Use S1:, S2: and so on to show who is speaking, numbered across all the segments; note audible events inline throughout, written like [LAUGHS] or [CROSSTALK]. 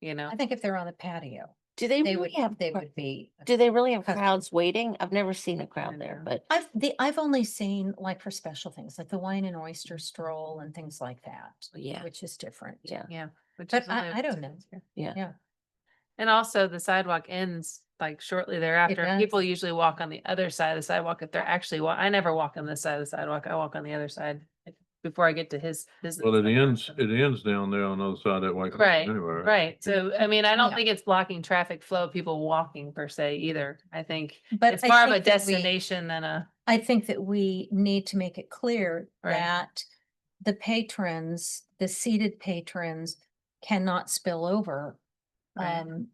S1: you know?
S2: I think if they're on the patio,
S3: Do they
S2: they
S3: really
S2: would,
S3: have,
S2: they
S3: cr-
S2: would be.
S3: do they really have
S2: cus-
S3: crowds waiting? I've never seen a crowd
S1: don't
S3: there,
S1: know.
S3: but
S2: I've, the, I've only seen like for special things, like the wine and
S1: Mm-hmm.
S2: oyster stroll and things like that,
S3: yeah,
S2: which is different.
S3: yeah.
S1: Yeah. which
S2: But
S1: is
S2: I-
S1: only
S2: I don't
S1: two
S2: know.
S1: months here.
S3: Yeah.
S2: Yeah.
S1: And also the sidewalk ends like shortly thereafter. and
S2: does.
S1: People usually walk on the other side of the sidewalk if they're actually, wa- I never walk on this side of the sidewalk. I walk on the other side like, before I get to his business.
S4: Well, it
S1: center,
S4: ends,
S1: so-
S4: it ends down there on the other side of that white.
S1: Right,
S4: Anyway.
S1: Right. So, I mean, I don't
S2: Yeah.
S1: think it's blocking traffic flow, of people walking per se either. I think
S2: But
S1: it's
S2: I
S1: more of a
S2: think that we-
S1: destination than a,
S2: I think that we need to make it clear
S1: Right.
S2: that the patrons, the seated patrons cannot spill over.
S1: Right.
S2: Um,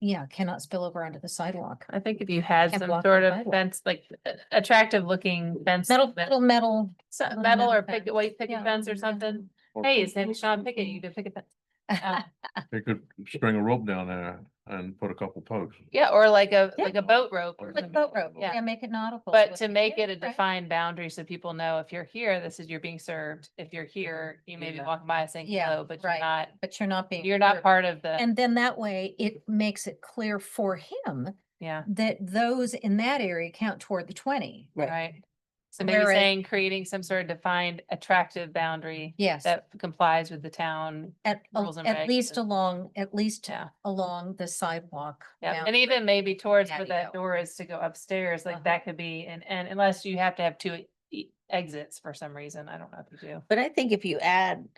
S2: yeah, cannot spill over onto the sidewalk.
S1: I think if you had
S2: Can't
S1: some
S2: block the
S1: sort of
S2: sidewalk.
S1: fence, like a- attractive looking fence.
S2: Metal,
S1: that-
S2: metal, metal.
S1: so-
S2: little
S1: Metal
S2: metal
S1: or picket,
S2: fence.
S1: white picket
S2: Yeah,
S1: fence or
S2: yeah.
S1: something.
S4: Or
S1: Hey, his name is Sean Pickett. You could pick a fence. Uh,
S4: They could string a rope down there and put a couple posts.
S1: [LAUGHS] Yeah, or like a,
S2: Yeah.
S1: like a boat rope. or
S4: Or
S2: [LAUGHS] Like
S1: something.
S2: boat rope,
S1: Yeah.
S2: yeah, make it nautical.
S1: But
S2: so
S1: to
S2: it's-
S1: make
S2: yeah,
S1: it a
S2: right.
S1: defined boundary, so people know if you're here, this is, you're being served. If you're here, you may be
S5: Yeah.
S1: walking by saying
S2: Yeah,
S1: hello, but you're
S2: right.
S1: not,
S2: But you're not being.
S1: you're not
S2: served.
S1: part of the,
S2: And then that way it makes it clear for him
S1: yeah,
S2: that those in that area count toward the twenty.
S5: Right.
S1: right? So maybe
S2: Whereas-
S1: saying, creating some sort of defined attractive boundary
S2: Yes, at,
S1: that complies with the town.
S2: a-
S1: rules and
S2: at
S1: regs
S2: least
S1: and-
S2: along, at least
S1: Yeah,
S2: along the sidewalk.
S1: yeah.
S2: bound-
S1: And even maybe towards where
S2: patio.
S1: that door is to go upstairs, like
S2: Uh-huh.
S1: that could be, and, and unless you have to have two e- exits for some reason. I don't know if you do.
S3: But I think if you add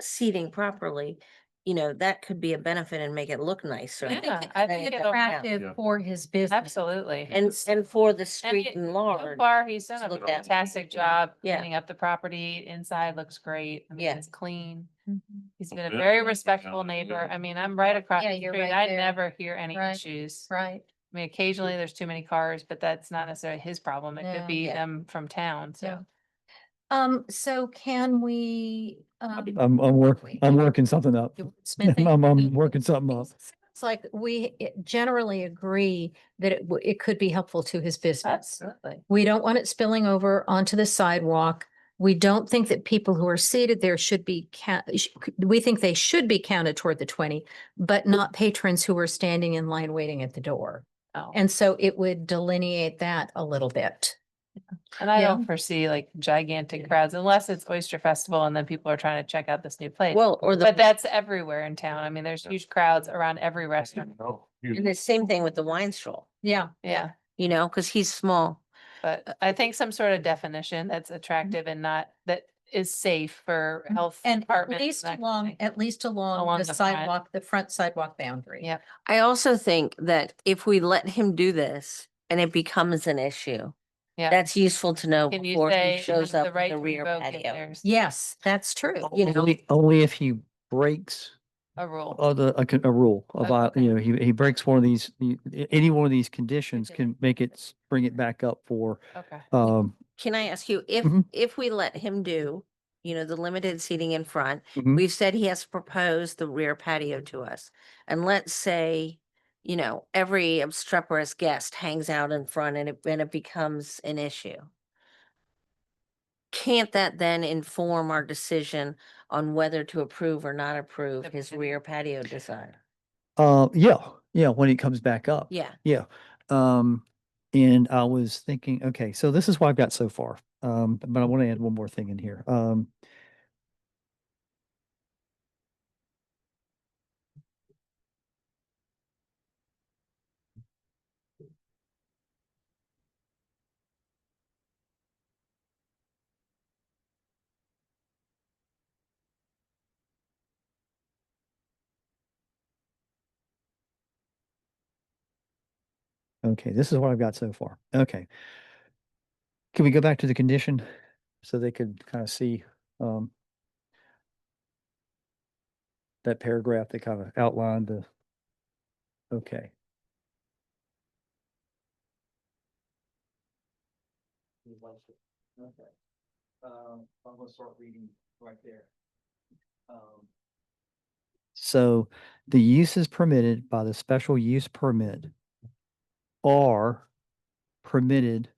S3: seating properly, you know, that could be a benefit and make it look nicer.
S1: Yeah,
S2: I think
S1: I
S2: it
S1: think
S2: could be
S1: it'll-
S4: Yeah.
S2: attractive for his business.
S1: Absolutely.
S3: And, and for the street
S1: it-
S3: in
S1: So
S3: large,
S1: far, he's done a
S3: looked at.
S1: fantastic job
S3: Yeah.
S1: cleaning up the property. Inside looks great. I mean,
S3: Yeah.
S1: It's clean.
S2: Mhm.
S1: He's been a
S4: Yeah.
S1: very respectful
S4: Yeah.
S1: neighbor. I mean, I'm right across
S2: Yeah,
S1: the
S2: you're
S1: street.
S2: right
S1: I
S2: there.
S1: never hear any
S2: Right.
S1: issues. I
S2: Right,
S1: mean, occasionally there's too many cars, but that's not necessarily his problem. It could
S2: No.
S1: be
S3: Yeah.
S1: them from town,
S2: so,
S1: so.
S2: um, so can we, um,
S6: [LAUGHS] I'm, I'm working,
S2: wait.
S6: I'm working something up. [LAUGHS]
S2: you smithing?
S6: I'm, I'm working something up.
S2: It's like we it- generally agree that it, w- it could be helpful to his business.
S1: Absolutely.
S2: We don't want it spilling over onto the sidewalk. We don't think that people who are seated there should be count, sh- we think they should be counted toward the twenty, but not patrons who are standing in line waiting at the door.
S1: Oh,
S2: And so it would delineate that a little bit.
S1: and I
S2: yeah.
S1: don't foresee like gigantic crowds unless it's Oyster Festival and then people are trying to check out this new place.
S3: well, or
S1: But
S3: the,
S1: that's everywhere in town. I mean, there's huge crowds around every restaurant.
S4: No,
S3: and
S4: you-
S3: the same thing with the wine stroll,
S2: Yeah.
S1: Yeah.
S3: you know, because he's small.
S1: But Uh, I think some sort of definition that's
S3: Mm-hmm.
S1: attractive and not, that is safe for
S2: Mhm.
S1: health
S2: And at
S1: departments.
S2: least
S1: that kind of
S2: along,
S1: thing.
S2: at least
S1: Along
S2: along the
S1: the front.
S2: sidewalk, the front sidewalk boundary.
S1: Yeah.
S3: I also think that if we let him do this and it becomes an issue,
S1: Yeah.
S3: that's useful to know
S1: Can you
S3: before
S1: say
S3: he shows
S1: the
S3: up
S1: right to
S3: in the rear
S1: revoke if
S3: patio.
S1: there's
S2: Yes, that's true.
S3: You know,
S6: Only, only if he breaks
S1: A rule.
S6: other, a, con- a rule
S1: Oh,
S6: about,
S1: okay.
S6: you know, he, he breaks one of these, the- a- any one of these conditions
S1: Condition.
S6: can make it, s- bring it back up for,
S1: Okay.
S6: um,
S3: Can I ask you, if,
S6: Mhm.
S3: if we let him do, you know, the limited seating in front,
S6: mhm.
S3: we've said he has to propose the rear patio to us. And let's say, you know, every obstreperous guest hangs out in front and it, and it becomes an issue. Can't that then inform our decision on whether to approve or not approve
S1: The
S3: his
S1: patio.
S3: rear patio design?
S6: uh, yeah, yeah, when it comes back up.
S3: Yeah,
S6: Um, and I was thinking, okay, so this is what I've got so far. Um, but I want to add one more thing in here. Um, Okay, this is what I've got so far. Okay. Can we go back to the condition so they could kind of see um that paragraph that kind of outlined the okay.
S7: Okay. Um, I'm gonna start reading right there. Um,
S6: So the uses permitted by the special use permit are permitted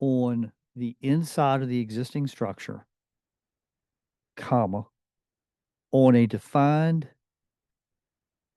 S6: on the inside of the existing structure, comma, on a defined